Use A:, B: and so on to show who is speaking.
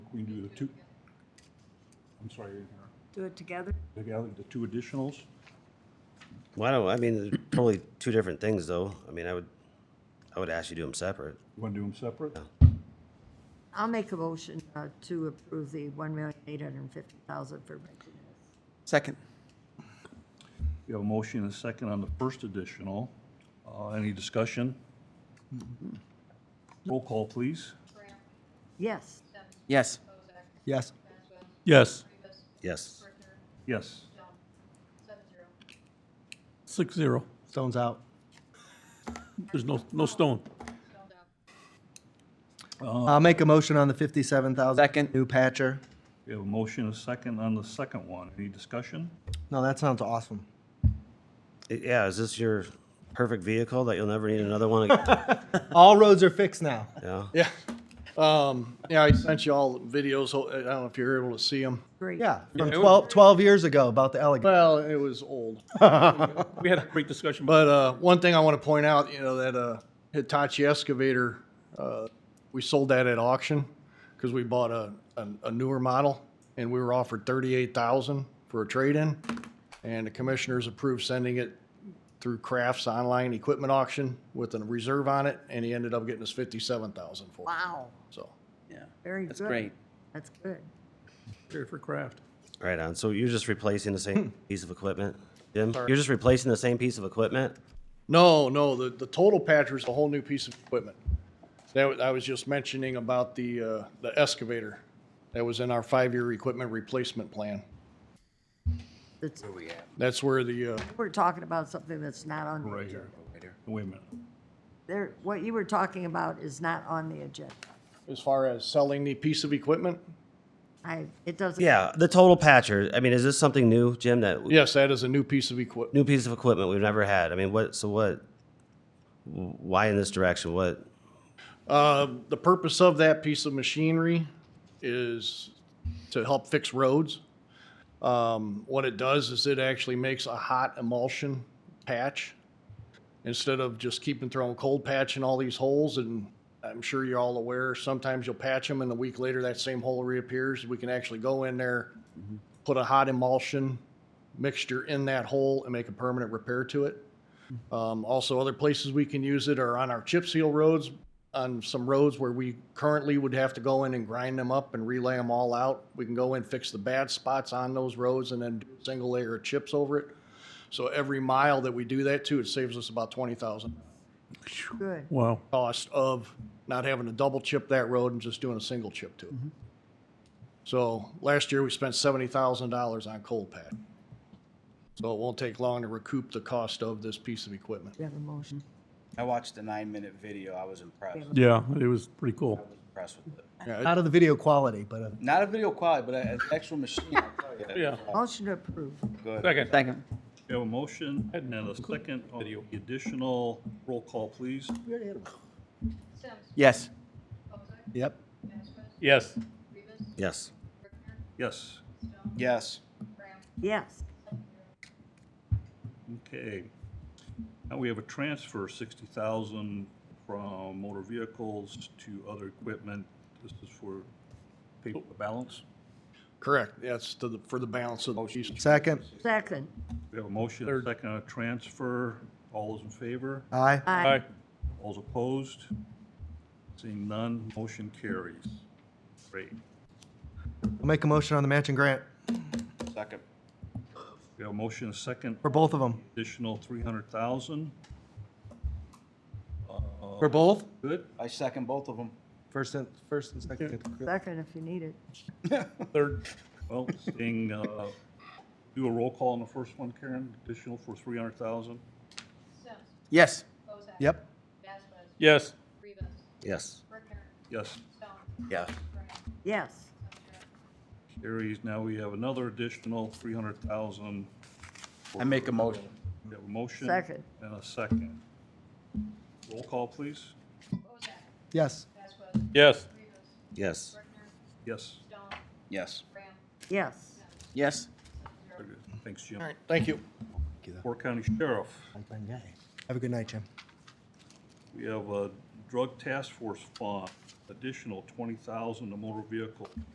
A: We can do the two, I'm sorry,
B: Do it together?
A: I gathered the two additionals.
C: Why don't, I mean, they're totally two different things, though. I mean, I would, I would ask you to do them separate.
A: You want to do them separate?
B: I'll make a motion uh, to approve the one million eight hundred and fifty thousand for Breckenridge.
D: Second.
A: We have a motion and a second on the first additional. Uh, Any discussion? Mm-hmm. Roll call, please.
B: Yes,
D: Yes. Yes.
E: Yes,
C: Yes.
A: Yes.
E: six zero.
D: Stone's out.
E: There's no, no stone.
F: I'll make a motion on the fifty-seven thousand.
D: Second.
F: New patcher.
A: We have a motion and a second on the second one. Any discussion?
F: No, that sounds awesome.
C: I- Yeah, is this your perfect vehicle that you'll never need another one again?
F: All roads are fixed now.
C: Yeah.
G: Yeah. Um, yeah, I sent you all videos. ho- I don't know if you're able to see them.
B: great.
F: Yeah, from 12, 12 years ago about the elegant.
G: Well, it was old.
E: We had a great discussion, but
G: But uh, one thing I want to point out, you know, that uh, Hitachi excavator, uh, we sold that at auction because we bought a, a, a newer model and we were offered thirty-eight thousand for a trade-in. And the commissioners approved sending it through Crafts online equipment auction with a reserve on it, and he ended up getting us fifty-seven thousand for it.
B: Wow,
G: So,
D: Yeah.
B: very good.
D: That's great.
B: That's good.
E: here for craft.
C: Right on. So you're just replacing the same piece of equipment, Jim? You're just replacing the same piece of equipment?
G: No, no, the, the total patcher is a whole new piece of equipment. That, wa- I was just mentioning about the, uh, the excavator that was in our five-year equipment replacement plan.
B: That's-
G: That's where the, uh,
B: We're talking about something that's not on the
A: Right
B: agenda.
A: here. Wait a minute.
B: There, what you were talking about is not on the agenda.
G: as far as selling the piece of equipment,
B: I, it doesn't.
C: Yeah, the total patcher. I mean, is this something new, Jim, that, w-
G: yes, that is a new piece of equipment.
C: new piece of equipment we've never had? I mean, what, so what? w- Why in this direction? What?
G: Uh, the purpose of that piece of machinery is to help fix roads. Um, what it does is it actually makes a hot emulsion patch instead of just keeping throwing cold patch in all these holes. And I'm sure you're all aware, sometimes you'll patch them and a week later that same hole reappears. We can actually go in there, put a hot emulsion mixture in that hole and make a permanent repair to it. Um, also, other places we can use it are on our chip seal roads, on some roads where we currently would have to go in and grind them up and relay them all out. We can go in, fix the bad spots on those roads and then do a single layer of chips over it. So every mile that we do that to, it saves us about twenty thousand
B: Good.
E: Wow.
G: cost of not having to double chip that road and just doing a single chip to it. So last year, we spent seventy thousand dollars on cold pad. So it won't take long to recoup the cost of this piece of equipment.
B: We have a motion.
H: I watched the nine minute video. I was impressed.
E: Yeah, it was pretty cool.
H: Impressed with it.
F: Out of the video quality, but uh,
H: Not a video quality, but an actual machine. I'll tell you.
E: Yeah.
B: Motion to approve.
H: Go ahead.
E: Second.
D: Second.
A: We have a motion and a second on the additional. Roll call, please.
D: Yes.
F: yep.
E: Yes.
C: Yes.
A: Yes.
H: Yes.
B: Yes,
A: Okay. Now we have a transfer, sixty thousand from motor vehicles to other equipment. This is for paper balance.
G: Correct, that's to the, for the balance of the piece.
F: Second.
B: second.
A: We have a motion, a second on a transfer. All those in favor?
F: Aye.
B: Aye.
A: All opposed? Seeing none, motion carries. Great.
F: I'll make a motion on the matching grant
H: Second.
A: We have a motion, a second,
F: for both of them.
A: additional three hundred thousand.
F: For both?
A: Good?
H: I second both of them.
F: First and, first and second.
B: Second if you need it.
E: Third.
A: Well, seeing, uh, do a roll call on the first one, Karen, additional for three hundred thousand?
D: Yes.
F: Yep.
E: Yes.
A: Yes.
C: Yes. Yes.
B: Yes,
A: Carries, now we have another additional three hundred thousand.
H: I make a motion.
A: We have a motion.
B: Second.
A: And a second. Roll call, please.
F: Yes.
C: Yes.
E: Yes.
A: Yes.
H: Yes.
B: yes.
D: Yes.
A: Very good. Thanks, Jim.
G: All right, thank you.
A: Four County Sheriff,
F: Have a good night, Jim.
A: we have a drug task force fund, additional twenty thousand to motor vehicle